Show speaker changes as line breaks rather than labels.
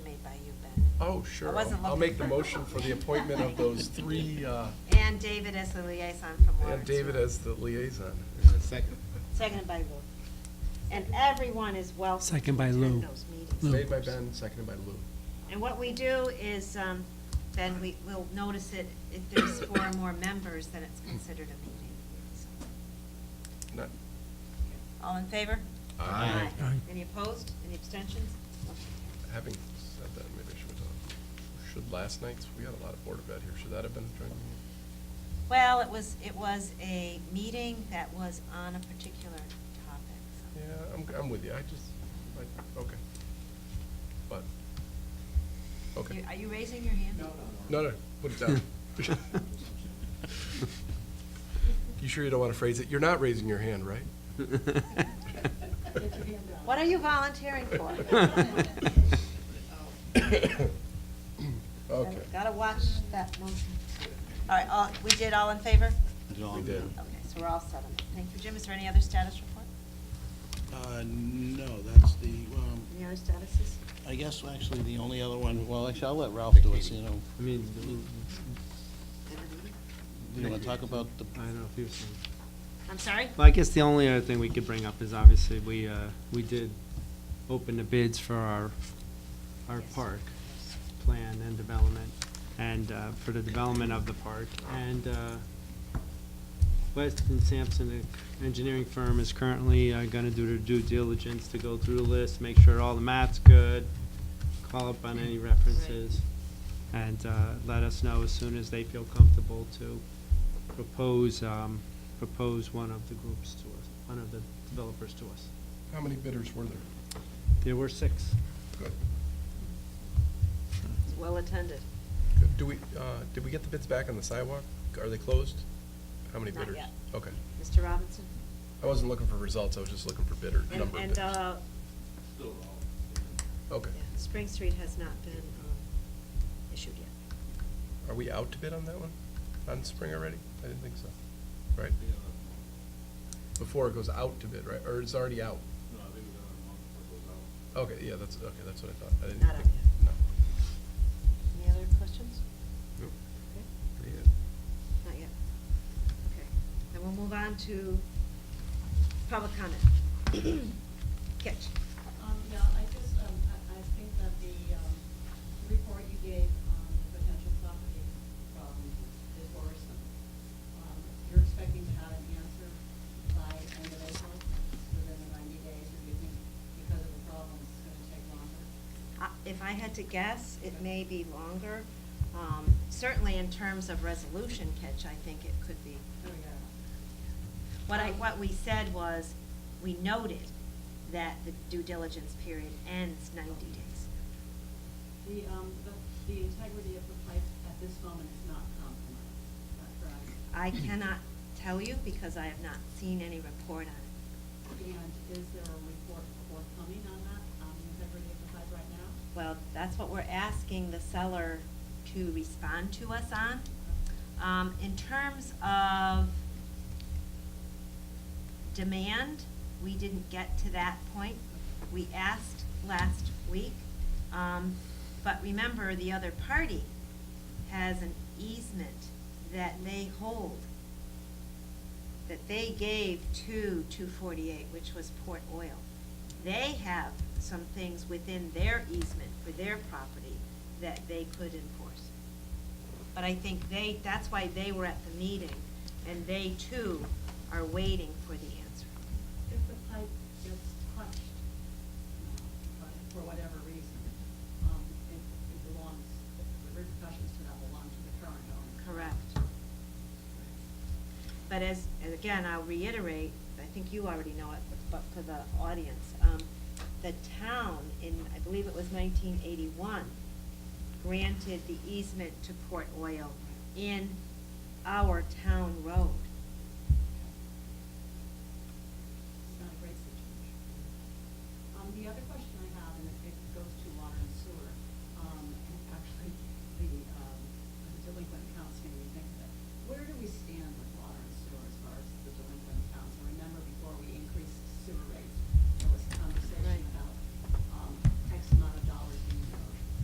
Oh, sure.
I wasn't
I'll
looking
make the
for-
motion for the appointment of those three, uh,
And David as the liaison from Lawrence.
and David as the liaison.
Second.
Seconded by Lou. And everyone is welcome.
Second by
to attend
Lou.
those meetings.
Lou.
Made by Ben, seconded by Lou.
And what we do is, um, then we will notice it, if there's four or more members, then it's considered a meeting. So,
Not-
All in favor?
Aye.
Aye.
Any opposed? Any abstentions?
Having said that, maybe I should, uh, should last night's, we had a lot of Board of Ed here, should that have been a joint meeting?
Well, it was, it was a meeting that was on a particular topic. so.
Yeah, I'm, I'm with you, I just, I, okay. But, okay.
You- Are you raising your hand?
No, no, put it down. You sure you don't want to phrase it? You're not raising your hand, right?
What are you volunteering for?
Okay,
Gotta watch that motion. All right, all, we did all in favor?
we did.
Okay, so we're all set on that. Thank you. Jim, is there any other status report?
Uh, no, that's the, um,
Any other statuses?
I guess actually the only other one, well, actually, I'll let Ralph do it, so you know.
I mean,
You wanna talk about the,
I don't know if you was saying.
I'm sorry?
Well, I guess the only other thing we could bring up is obviously we, uh, we did open the bids for our, our
Yes.
park plan and development, and, uh, for the development of the park. And, uh, Weston Sampson the Engineering Firm is currently, uh, gonna do their due diligence to go through the list, make sure all the math's good, call up on any references, and, uh, let us know as soon as they feel comfortable to propose, um, propose one of the groups to us, one of the developers to us.
How many bidders were there?
There were six.
Good.
It's well attended.
Good. Do we, uh, did we get the bids back on the sidewalk? Are they closed? How many
Not
bidders?
yet.
Okay.
Mr. Robinson?
I wasn't looking for results, I was just looking for bidder, number
And,
of
and,
bidders.
uh,
Okay.
yeah, Spring Street has not been, um, issued yet.
Are we out to bid on that one? On spring already? I didn't think so. Right? Before it goes out to bid, right? Or it's already out? Okay, yeah, that's, okay, that's what I thought. I didn't
Not out
think-
yet. Any other questions?
No. Nope.
Okay.
Pretty good.
Not yet. Okay, then we'll move on to public comment. Kitch?
Um, yeah, I just, um, I, I think that the, um, report you gave on the potential property problem is worrisome. Um, you're expecting to have an answer by end of April, within the ninety days, or you think because of the problem, it's gonna take longer?
I- Uh, If I had to guess, it may be longer. Um, Certainly in terms of resolution catch, I think it could be.
There we go.
What I, what we said was, we noted that the due diligence period ends 90 days.
The, um, the, the integrity of the pipe at this moment is not compromised, is that correct?
I cannot tell you because I have not seen any report on it.
And is there a report forthcoming on that, on the integrity of the pipe right now?
Well, that's what we're asking the seller to respond to us on. Um, In terms of demand, we didn't get to that point. We asked last week, um, but remember, the other party has an easement that they hold, that they gave to 248, which was Port Oil. They have some things within their easement for their property that they could enforce. But I think they, that's why they were at the meeting, and they too are waiting for the answer.
If the pipe gets touched, uh, but for whatever reason, um, it, it belongs, the repercussions to that belong to the current owner.
Correct. But as, and again, I'll reiterate, I think you already know it, but for the audience, um, the town in, I believe it was nineteen eighty-one, granted the easement to Port Oil in our town road.
Um, um, um,